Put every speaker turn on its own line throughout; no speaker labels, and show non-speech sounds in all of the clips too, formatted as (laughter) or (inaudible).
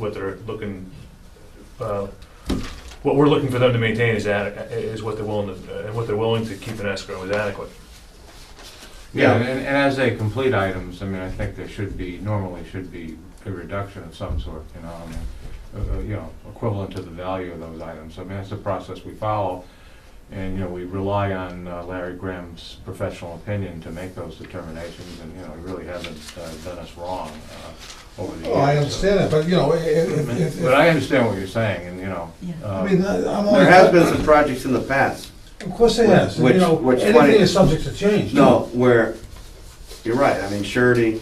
what they're looking, uh, what we're looking for them to maintain is adequate, is what they're willing to, and what they're willing to keep in escrow is adequate.
Yeah,
Yeah.
and, and as they complete items, I mean, I think there should be, normally should be a reduction of some sort, you know, I mean, uh, uh, you know, equivalent to the value of those items. I mean, that's the process we follow, and, you know, we rely on uh, Larry Graham's professional opinion to make those determinations, and, you know, he really hasn't uh, done us wrong uh, over the years.
Oh, I
so-
understand that, but you know, if, if- if,
But I understand what you're saying, and, you know.
Yeah.
uh,
I mean, I- I'm only.
There has been some projects in the past,
Of course it has, and, you
Which-
know,
which one
anything
is-
is subject to change.
no, where, you're right, I mean, surety,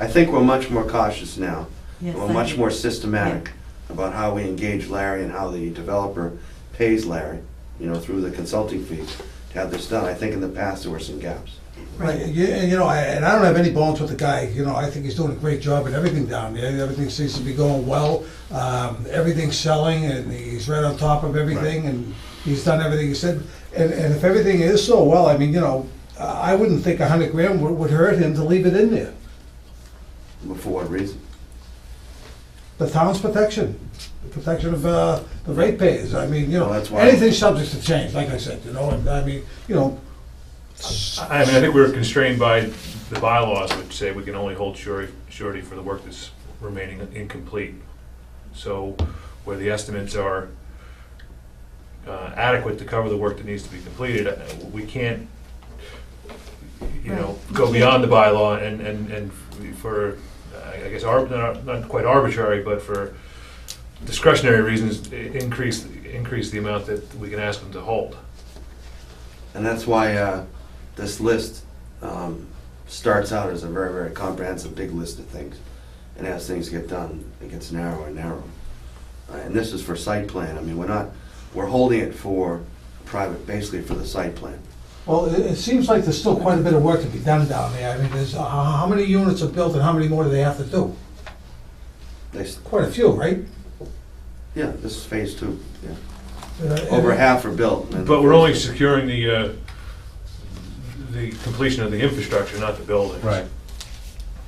I think we're much more cautious now.
Yes,
We're
I
much
do.
more systematic about how we engage Larry and how the developer pays Larry, you know, through the consulting fee to have this done. I think in the past, there were some gaps.
Right, and you and, you know, I- and I don't have any bones with the guy, you know, I think he's doing a great job at everything down there, everything seems to be going well, um, everything's selling, and he's right on top of everything, and he's done everything he said, and, and if everything is so well, I mean, you know, I I wouldn't think a hundred grand would, would hurt him to leave it in there.
But For what reason?
The town's protection, the protection of, uh, the ratepayers, I mean, you know,
Well, that's why-
anything's subject to change, like I said, you know, and I mean, you know,
I I mean, I think we're constrained by the bylaws, which say we can only hold surety, surety for the work that's remaining incomplete. So where the estimates are uh, adequate to cover the work that needs to be completed, uh, we can't, you know, go beyond the bylaw and, and, and for, I guess, arb- not not quite arbitrary, but for discretionary reasons, i- increase, increase the amount that we can ask them to hold.
And that's why uh, this list um, starts out as a very, very comprehensive, big list of things. And as things get done, it gets narrower and narrower. Uh, And this is for site plan. I mean, we're not, we're holding it for private, basically for the site plan.
Well, it, it seems like there's still quite a bit of work to be done down there. I mean, there's, uh, how how many units are built and how many more do they have to do?
They, s-
Quite a few, right?
yeah, this is phase two. yeah.
Uh, and-
Over half are built. and-
But we're only securing the, uh, the completion of the infrastructure, not the buildings.
Right.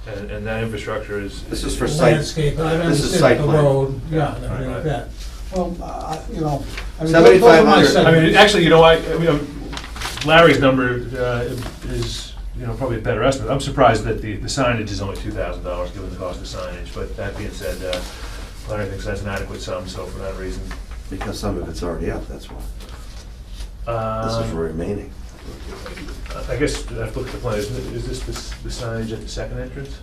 And, and that infrastructure is.
This is for site.
Landscape, I
This
understand
is site
the
plan.
road, yeah, and everything like
Right.
that. Well, uh, you know, I mean, those- those are my
7,500.
I
segments.
mean, actually, you know, I, I mean, Larry's number uh, is, you know, probably a better estimate. I'm surprised that the the signage is only two thousand dollars, given the cost of signage, but that being said, uh, Larry thinks that's an adequate sum, so for that reason.
Because some of it's already up, that's why. This is for
um,
remaining.
I guess, I have to look at the plan, is is this the s- the signage at the second entrance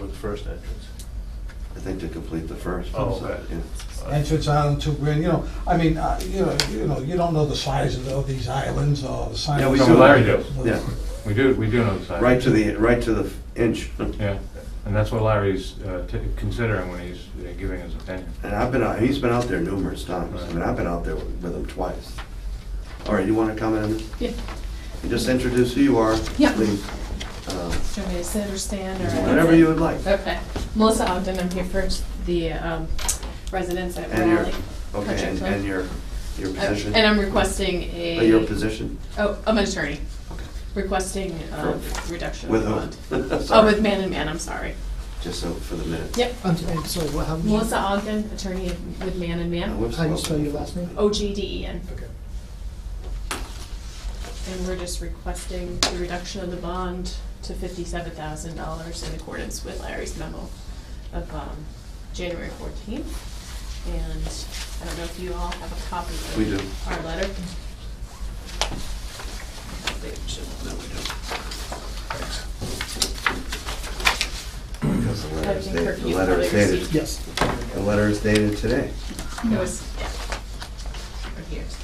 or the first entrance?
I think to complete the first.
Oh, okay.
Yeah.
Entrance island, two grand, you know, I mean, uh, you know, you know, you don't know the size of the- of these islands or the size.
Yeah, we
No,
of-
do.
Larry does.
Yeah,
We do, we do know the size.
right to the, right to the inch.
Yeah, and that's what Larry's uh, t- considering when he's uh, giving his opinion.
And I've been out, he's been out there numerous times. I mean, I've been out there with him twice. All right, you want to come in?
Yeah.
You Just introduce who you are.
Yeah.
please. Uh,
Do you want me to sit or stand or?
Whatever you would like.
Okay. Melissa Ogden, I'm here for the um, residents at
And your,
Raleigh.
okay, and-
Project.
and your, your
Oh, Uh,
position?
And I'm requesting
Uh, Your
a,
position
oh, I'm an attorney,
Okay.
requesting um, reduction of
with
the bond.
(laughs) whom?
Oh,
Sorry.
with Man and Man, I'm sorry.
Just so for the minute.
Yep.
I'm sorry, I'm sorry, what, how many-
Melissa Ogden, attorney with Man and
Now,
Man,
whoops,
how do you
okay.
spell your last name?
O G D E N.
Okay.
And we're just requesting the reduction of the bond to fifty-seven thousand dollars in accordance with Larry's memo of, um, January fourteenth. And I don't know if you all have a copy of
We do.
our letter. They should- no, we don't.
Because the
I
letter is
think
dated,
Kirk,
the
you
letter is
probably
dated,
received-
Yes.
the letter is dated today.
It was, yeah. Or here, so.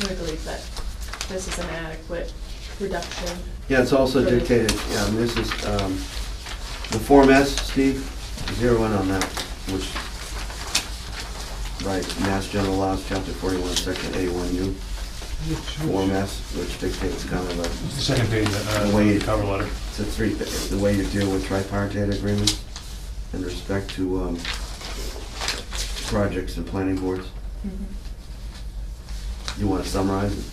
We believe that this is an adequate reduction.
Yeah, it's also
Right.
dictated, yeah, and this is, um, the Form S, Steve, zero in on that, which, right, Mass General Laws, Chapter forty-one, Section A one U, Form S, which dictates kind of a,
Second page, uh,
The way-
cover letter.
it's a three, the way you deal with tripartite agreements in respect to, um, projects and planning boards. You want to summarize it?